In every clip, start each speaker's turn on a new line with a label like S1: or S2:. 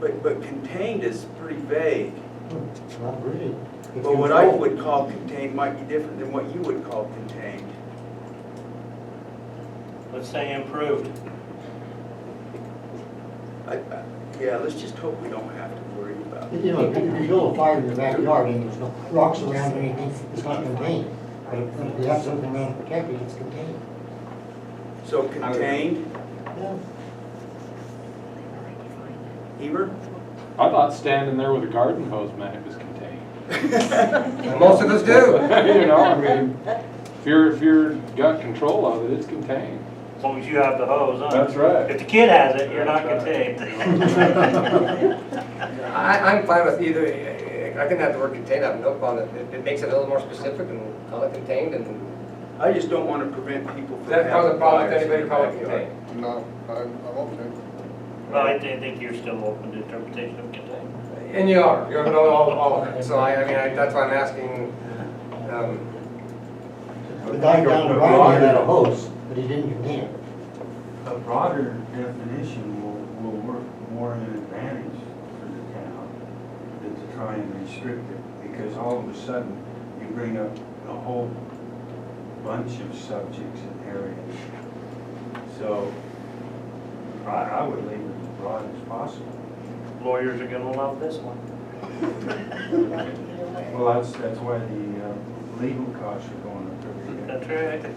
S1: But, but contained is pretty vague.
S2: It's not really. It's
S1: But what I
S2: controlled.
S1: would call contained might be different than what you would call contained.
S3: Let's say improved.
S1: I, I, yeah, let's just hope we don't have to worry about it.
S2: You know, if you- if you build a fire in your backyard and there's no rocks around or anything, it's not contained. But if if you have something around to protect it, it's contained.
S1: So contained,
S2: Yeah.
S1: Eber?
S4: I thought standing there with a garden hose meant it was contained.
S5: Most of us do.
S4: You know, I mean, if you're, if you're got control of it, it's contained.
S3: As long as you have the hose, huh?
S4: That's right.
S3: If the kid has it, you're not
S4: That's right.
S3: contained.
S5: I, I'm fine with either, I can have the word contained, I have no problem. It, it makes it a little more specific and call it contained and
S1: I just don't want to prevent people from
S5: does that cause a
S1: having
S5: problem
S1: fires
S5: with
S1: in their
S5: anybody calling it
S1: backyard.
S5: contained?
S6: No, I'm, I'm okay.
S3: Well, I thi- think you're still open to interpretation of contained.
S5: And you are, you know all, all of it. So I, I mean, I- that's why I'm asking, um,
S2: The guy down the road had a hose, but he didn't contain it.
S7: A broader definition will, will work more in advantage for the town than to try and restrict it, because all of a sudden, you bring up a whole bunch of subjects and areas. So, I, I would leave it as broad as possible.
S3: Lawyers are gonna love this one.
S7: Well, that's, that's why the uh, legal costs are going up every year.
S3: That's right.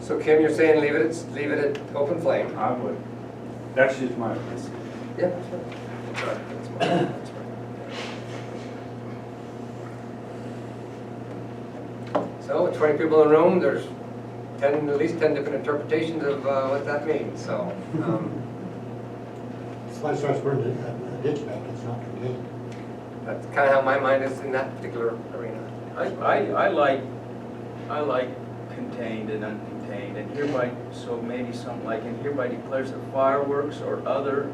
S5: so Kim, you're saying leave it, at- leave it at open flame?
S7: I would, that's just my opinion.
S5: Yeah. that's right. That's right. That's my- that's right. So with 20 people in a room, there's 10, at least 10 different interpretations of uh, what that means, so. um,
S2: It's like starts burning a a ditch back, it's not contained.
S5: That's kind of how my mind is in that particular arena.
S1: I, I, I like, I like contained and uncontained, and hereby, so maybe something like, and hereby declares that fireworks or other,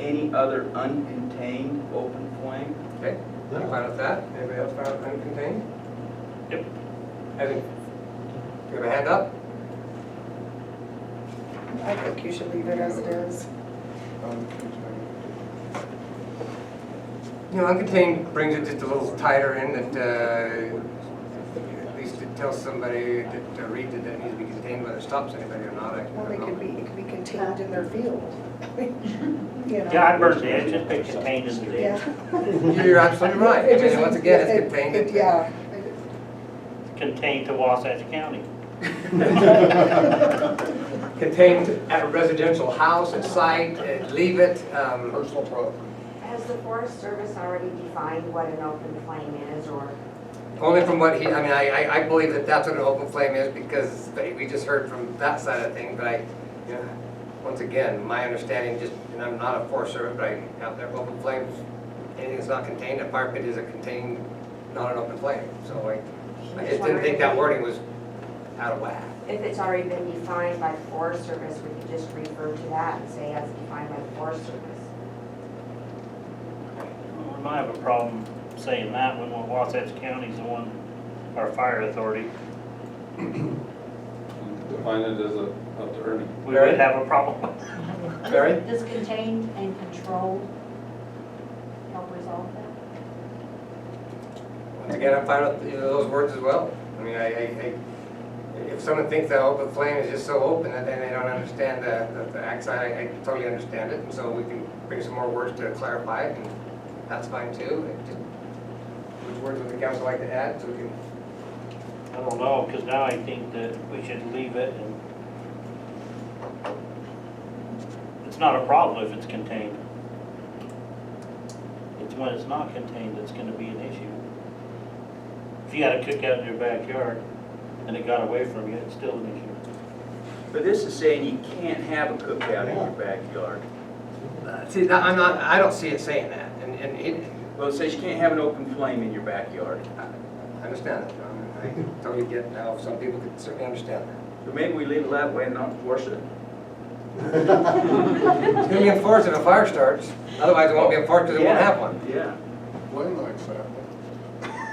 S1: any other uncontained open flame.
S5: Okay, you fine with that? Anybody else found uncontained?
S3: Yep.
S5: Evan, you have a hand up?
S8: I think you should leave it as it is.
S6: I'm contained.
S5: You know, uncontained brings it just a little tighter in that, uh, at least it tells somebody that, to read that it needs to be contained, whether it stops anybody or not. I- I
S8: Well,
S5: don't
S8: they could be,
S5: know.
S8: it could be contained in their field. You know?
S3: Yeah, I burned the edge, just been contained in the ditch.
S8: Yeah.
S5: You're absolutely right. I
S8: It
S5: mean,
S8: just-
S5: once again,
S8: it-
S5: it's contained.
S8: it-
S5: in-
S8: Yeah.
S3: Contained to Wasatch County.
S5: Contained at a residential house, at site, uh, leave it, um,
S6: Personal property.
S9: Has the Forest Service already defined what an open flame is, or?
S5: only from what he, I mean, I, I, I believe that that's what an open flame is because they- we just heard from that side of the thing, but I, you know, once again, my understanding just, and I'm not a forest servant, but I, out there, open flames, anything that's not contained, a fire pit is a contained, not an open flame, so I, I just didn't think that wording was out of whack.
S9: If it's already been defined by the Forest Service, we could just refer to that and say as defined by the Forest Service.
S3: We might have a problem saying that when Wasatch County's the one, our fire authority.
S4: Define it as a, up to Ernie.
S3: We would have a problem.
S5: Barry?
S10: Does contained and controlled help resolve that?
S5: Once again, I'm fine with either of those words as well. I mean, I, I, I- if someone thinks that open flame is just so open that then they don't understand the, the- the accent, I, I totally understand it. And so we can bring some more words to clarify it, and that's fine too. It just- Which words would the council like to add, so we can,
S3: I don't know, because now I think that we should leave it and it's not a problem if it's contained. It's when it's not contained that's gonna be an issue. If you had a cookout in your backyard and it got away from you, it's still an issue.
S1: But this is saying you can't have a cookout in your backyard.
S5: Uh, see, that- I'm not, I don't see it saying that, and, and it,
S1: Well, it says you can't have an open flame in your backyard.
S5: I understand that, John. and I totally get how some people could certainly understand that.
S1: So maybe we leave it that way and not enforce it.
S5: It's gonna be enforced if a fire starts, otherwise it won't be enforced because it won't have one.
S1: Yeah.
S6: Blaine likes that.